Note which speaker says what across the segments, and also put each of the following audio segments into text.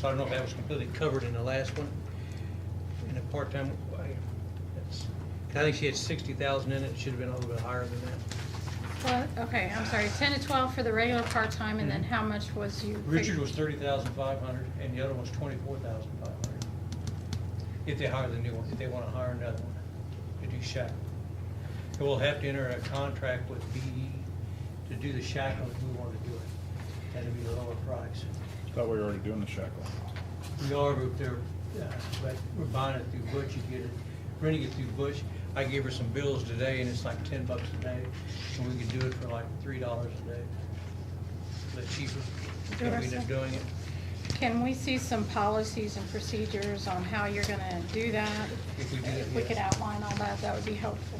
Speaker 1: so I don't know if that was completely covered in the last one. In a part-time, I- that's, 'cause I think she had sixty thousand in it, it should have been a little bit higher than that.
Speaker 2: Well, okay, I'm sorry, ten to twelve for the regular part-time, and then how much was you? fig-
Speaker 1: Mm-hmm. Richard was thirty thousand five hundred, and the other one's twenty-four thousand five hundred. If they hire the new one, if they wanna hire another one, to do shackle. And we'll have to enter a contract with BE to do the shackle if we wanna do it. That'd be a lower price.
Speaker 3: Thought we were already doing the shackle.
Speaker 1: We are up there, uh, but we're buying it through Butch, you get it, renting it through Butch. I gave her some bills today and it's like ten bucks a day, and we can do it for like three dollars a day. But cheaper, than we end up doing it.
Speaker 2: Can we see some policies and procedures on how you're gonna do that?
Speaker 1: If we do that,
Speaker 2: If we could
Speaker 1: yes.
Speaker 2: outline all that, that would be helpful.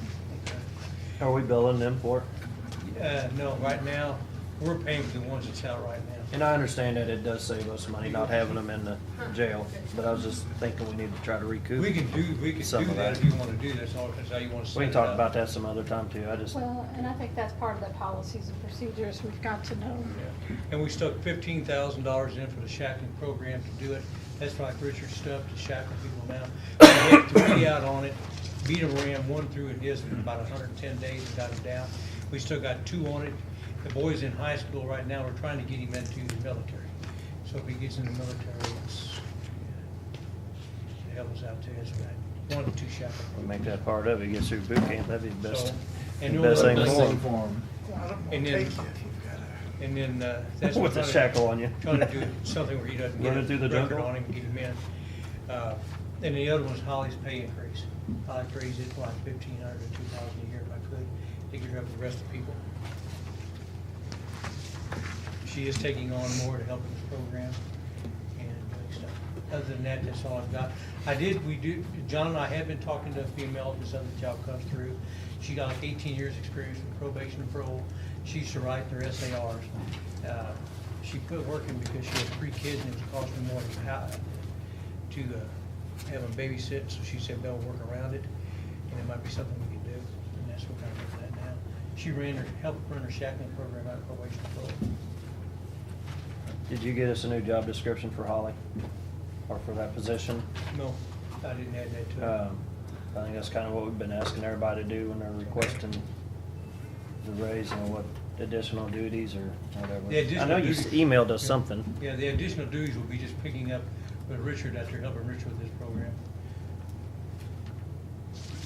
Speaker 4: Are we billing them for it?
Speaker 1: Uh, no, right now, we're paying for the ones that's out right now.
Speaker 4: And I understand that it does save us money not having them in the jail, but I was just thinking we need to try to recoup.
Speaker 1: We can do, we can
Speaker 4: Some
Speaker 1: do
Speaker 4: of
Speaker 1: that
Speaker 4: that.
Speaker 1: if you wanna do this, or if that's how you wanna set
Speaker 4: We can
Speaker 1: it
Speaker 4: talk
Speaker 1: up.
Speaker 4: about that some other time too, I just,
Speaker 2: Well, and I think that's part of the policies and procedures we've got to know.
Speaker 1: Yeah. And we stuck fifteen thousand dollars in for the shackling program to do it. That's like Richard's stuff to shackle people now. We had three out on it, beat them around, one through in his in about hundred and ten days and got him down. We still got two on it. The boy's in high school right now. We're trying to get him into the military. So if he gets in the military, it's, yeah, help us out too, that's right. One or two shackle.
Speaker 4: we make that part of it, gets through boot camp, that'd be the best.
Speaker 1: So, and
Speaker 4: best
Speaker 1: you'll-
Speaker 4: thing
Speaker 3: Best
Speaker 4: for 'em.
Speaker 3: form.
Speaker 1: And then, and then, uh, that's.
Speaker 4: With the
Speaker 1: trying to-
Speaker 4: shackle on you.
Speaker 1: Trying to do something where he doesn't get
Speaker 4: Run it through
Speaker 1: a
Speaker 4: the
Speaker 1: record
Speaker 4: jungle?
Speaker 1: on him, and get him in. Uh, And the other one's Holly's pay increase. I would raise it like fifteen hundred or two thousand a year if I could, to get her up with the rest of the people. She is taking on more to help with this program and doing stuff. Other than that, that's all I've got. I did, we do, John and I have been talking to a female, this other job comes through. She got like eighteen years' experience with probation and parole. She used to write their SARs. Uh, She quit working because she had three kids and it was costing more than how, to uh, have them babysit, so she said they'll work around it, and it might be something we can do, and that's what kind of looking at now. She ran her, helped run her shackling program out of probation parole.
Speaker 4: Did you get us a new job description for Holly? Or for that position?
Speaker 1: No, I didn't add that to
Speaker 5: Oh.
Speaker 1: it.
Speaker 4: Um, I think that's kind of what we've been asking everybody to do when they're requesting the raise and what additional duties or
Speaker 1: The
Speaker 4: whatever. I
Speaker 1: additional
Speaker 4: know you
Speaker 1: duties-
Speaker 4: emailed us something.
Speaker 1: Yeah, the additional duties will be just picking up with Richard after helping Richard with this program.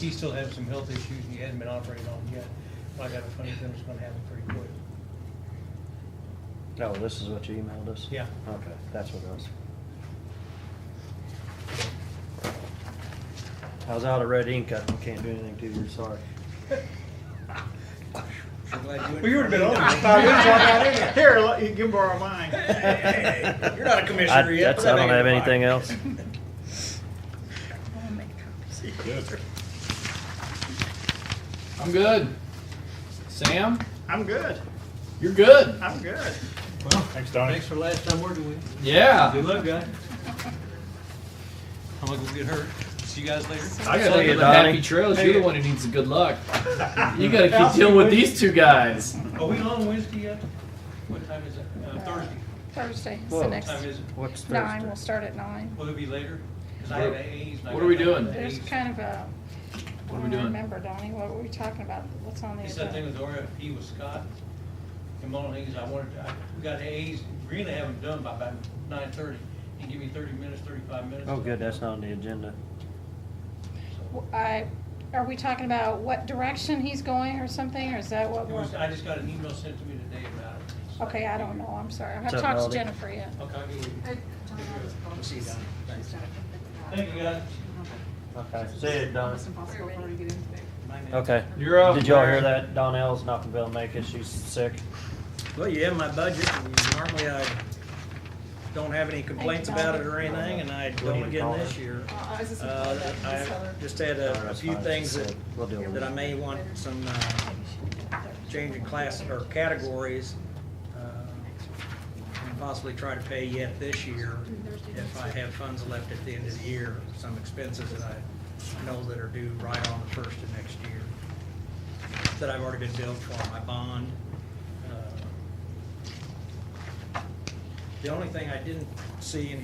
Speaker 1: He still has some health issues and he hasn't been operated on yet, but I got a funny feeling it's gonna happen pretty quick.
Speaker 4: No, Oh, this is what you emailed us?
Speaker 1: Yeah.
Speaker 4: Okay, that's what it was. I was out of red ink, I can't do anything to you, sorry.
Speaker 1: Well, you would've been on it.
Speaker 6: Here, let- you can borrow mine.
Speaker 1: You're not a
Speaker 4: I-
Speaker 1: commissioner yet.
Speaker 4: that's- I don't have anything else.
Speaker 3: Good.
Speaker 5: I'm good. Sam,
Speaker 6: I'm good.
Speaker 5: you're good.
Speaker 6: I'm good.
Speaker 3: Thanks, Donnie.
Speaker 1: Thanks for last time working with you. Good
Speaker 5: Yeah.
Speaker 1: luck, guys. I'm gonna go get her. See you guys later.
Speaker 5: I
Speaker 4: Tell
Speaker 5: gotta
Speaker 4: you,
Speaker 5: live a happy
Speaker 4: Donnie.
Speaker 5: trails. You're the one who needs the good luck. You gotta keep dealing with these two guys.
Speaker 1: Are we on Wednesday yet? What time is it? Uh, Thursday.
Speaker 2: Thursday is
Speaker 4: Whoa.
Speaker 2: the next.
Speaker 1: Time is it?
Speaker 4: What's
Speaker 2: Nine,
Speaker 4: Thursday?
Speaker 2: we'll start at nine.
Speaker 1: Will it be later? 'Cause I
Speaker 5: What-
Speaker 1: have A's and I
Speaker 5: what
Speaker 1: got
Speaker 5: are we
Speaker 1: nothing but
Speaker 5: doing?
Speaker 2: There's
Speaker 1: A's.
Speaker 2: kind of a, I
Speaker 5: What are we
Speaker 2: don't
Speaker 5: doing?
Speaker 2: remember, Donnie, what were we talking about? What's on the
Speaker 1: It's that thing
Speaker 2: agenda?
Speaker 1: with RFP with Scott. And one of the things I wanted, to- I, we got A's, we're gonna have them done by about nine thirty. You give me thirty minutes, thirty-five minutes.
Speaker 4: Oh, good, that's not on the agenda.
Speaker 2: W- I, are we talking about what direction he's going or something, or is that what
Speaker 1: It
Speaker 2: we're?
Speaker 1: was, I just got an email sent to me today about it. So-
Speaker 2: Okay, I don't know, I'm sorry. I haven't
Speaker 4: What's up,
Speaker 2: talked to
Speaker 4: Melody?
Speaker 2: Jennifer yet.
Speaker 1: Okay, I'll get with you.
Speaker 7: I don't know this problem.
Speaker 1: See you down. Thanks.
Speaker 7: She's got it.
Speaker 1: Thank you, guys.
Speaker 4: Okay, see it, Don.
Speaker 7: It's impossible for her to get in today.
Speaker 4: Okay.
Speaker 5: You're up.
Speaker 4: Did y'all hear that? Donnell's not gonna be able to make it, she's sick.
Speaker 6: Well, you have my budget, and normally I don't have any complaints about it or anything, and I don't again this year.
Speaker 7: Uh, I was just.
Speaker 6: Uh, I just had
Speaker 4: Oh,
Speaker 6: a a
Speaker 4: that's
Speaker 6: few
Speaker 4: fine.
Speaker 6: things that,
Speaker 4: We'll deal with
Speaker 6: that I
Speaker 4: it.
Speaker 6: may want some, uh, change in class or categories, uh, and possibly try to pay yet this year if I have funds left at the end of the year, some expenses that I know that are due right on the first of next year, that I've already been billed for, my bond. uh, The only thing I didn't see in